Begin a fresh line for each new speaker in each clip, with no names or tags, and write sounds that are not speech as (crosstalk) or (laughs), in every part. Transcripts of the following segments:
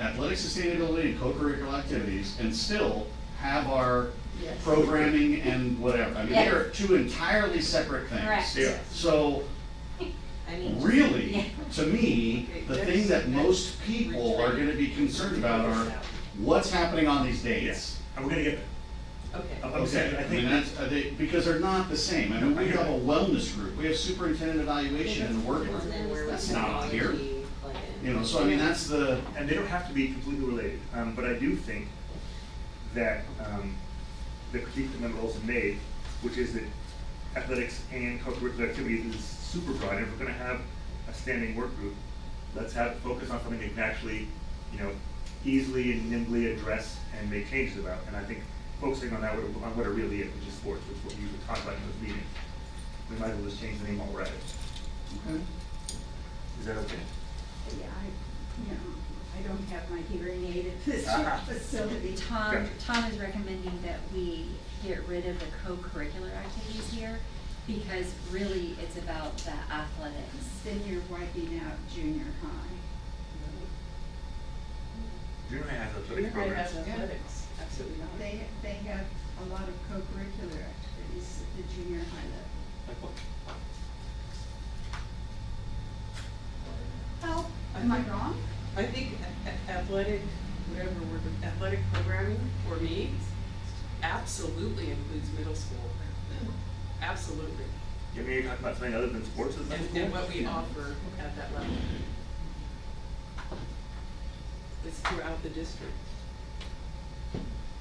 athletic sustainability and co-curricular activities and still have our
Yes.
programming and whatever. I mean, they are two entirely separate things.
Correct.
Yeah.
So
I mean,
Yeah.
really, to me, the thing that most people are gonna be concerned about are what's happening on these dates.
Yes, and we're gonna get,
okay,
Oh.
I'm- I'm saying, I
I mean,
think,
that's, uh, they, because they're not the same. I mean, we have a wellness group, we have superintendent evaluation and work group.
and then where would
That's not on here.
technology plug in?
You know, so I mean, that's the,
and they don't have to be completely related, um, but I do think that, um, the critique that Member Olson made, which is that athletics and co-curricular activities is super broad, and if we're gonna have a standing work group, let's have, focus on something they can actually, you know, easily and nimbly address and make changes about, and I think focusing on that, what- on what it really is, which is sports, which is what we were talking about in this meeting, we might as well just change the name while we're at it.
okay.
Is that okay?
Yeah, I, you know, I don't have my hearing aid at this
Ah.
facility.
Tom,
Gotcha.
Tom is recommending that we get rid of the co-curricular activities here because really it's about the athletics.
Then you're wiping out junior high.
Junior high has
We're
athletic
not gonna have
programs.
athletics, absolutely not.
They, they have a lot of co-curricular activities at the junior high level.
Like what?
How, am I wrong?
I think a- a- athletic, whatever word, athletic programming for me absolutely includes middle school. Absolutely.
Yeah, maybe you're talking about something other than sports is that
And,
cool?
and what we offer at that level. It's throughout the district.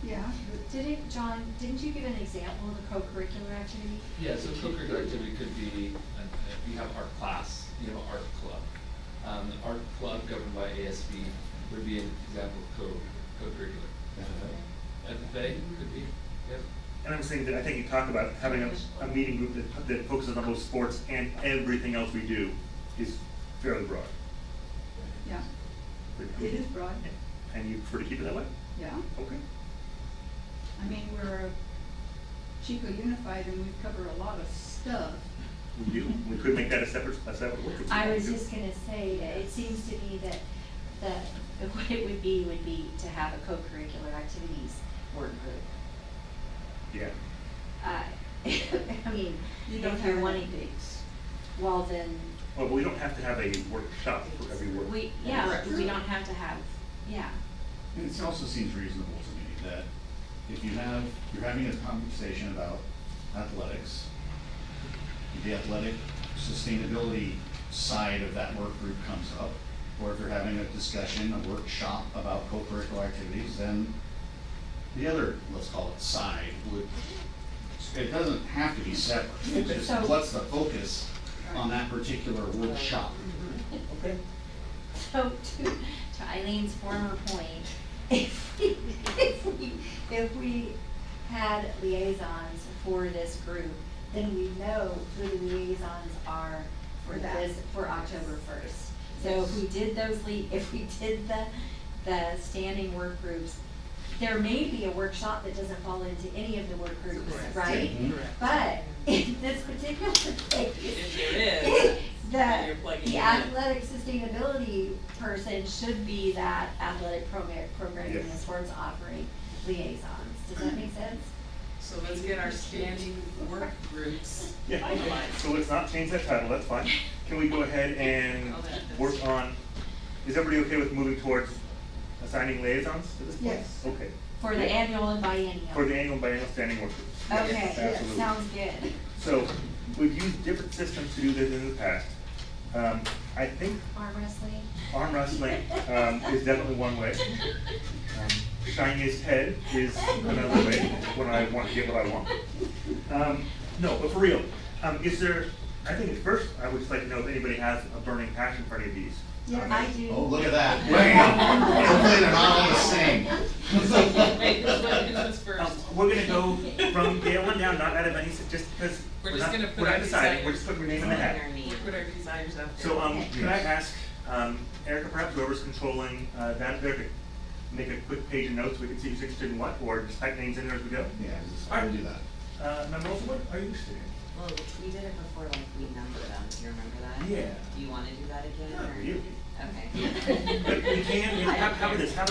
Yeah,
Didn't, John, didn't you give an example of a co-curricular activity?
Yeah, so co-curricular activity could be, uh, you have art class, you have an art club. Um, the art club governed by ASB would be an example of co, co-curricular. FFA could be, yep.
And I'm saying that I think you talked about having a, a meeting group that, that focuses on both sports and everything else we do is fairly broad.
yeah,
But-
it is broad,
And you prefer to keep it that way?
yeah.
Okay.
I mean, we're a Chico Unified and we cover a lot of stuff.
We do, we could make that a separate, a separate work. group.
I was just gonna say that it seems to me that, that (laughs) what it would be would be to have a co-curricular activities work group.
Yeah,
Uh, (laughs) I mean,
You don't
if you're
have
wanting
any.
to, well then,
well, but we don't have to have a workshop for every work.
we, yeah,
Correct.
we don't have to have, yeah.
And it also seems reasonable to me that if you have, you're having a conversation about athletics, the athletic sustainability side of that work group comes up, or if you're having a discussion, a workshop about co-curricular activities, then the other, let's call it side, would, it doesn't have to be separate. It's
So-
just what's the focus on that particular workshop?
Okay.
So to, to Eileen's former point, (laughs) if we, if we, if we had liaisons for this group, then we know who the liaisons are for
For that.
this, for October first. So if we did those lea, if we did the, the standing work groups, there may be a workshop that doesn't fall into any of the work groups,
Correct.
right?
Mhm.
But (laughs) in this particular case.
If there is, then you're
The,
plugging it
the
in.
athletic sustainability person should be that athletic program, programming
Yes.
and sports offering liaisons. Does that make sense?
So let's get our standing work groups.
Yeah, okay. so let's not change that title, that's fine. Can we go ahead and
Oh, that- that's-
work on, is everybody okay with moving towards assigning liaisons at this point?
Yes.
Okay.
For the annual and
For
biennial.
the annual biennial standing work groups.
Okay,
Absolutely.
sounds good.
So, we've used different systems to do this in the past. Um, I think
Arm wrestling.
arm wrestling, um, is definitely one way. Um, Shining his head is another way, when I want to get what I want. Um, no, but for real, um, is there, I think at first, I would just like to know if anybody has a burning passion for any of these.
Yeah,
Um,
I
Oh,
do.
look
(laughs)
at that. Bam! Hopefully they're not all the same.
(laughs)
(laughs)
Wait, who's one, who's this
Um,
first?
we're gonna go from Gale one down, not out of any, just because
We're
we're
just
not,
gonna put
we're
our
not deciding,
desires.
we're just putting your name in the hat.
Put our desires out there.
So, um, can I
Yes.
ask, um, Erica, perhaps whoever's controlling, uh, that, there to make a quick page of notes, so we can see who's interested in what, or just type names in there as we go?
Yeah, just- we'll do that.
Uh, Member Olson, what are you interested in?
Well, we did it before, like, we number them, do you remember that?
Yeah.
Do you wanna do that again,
Not
or?
really.
Okay.
(laughs) But we can, how, how about this, how about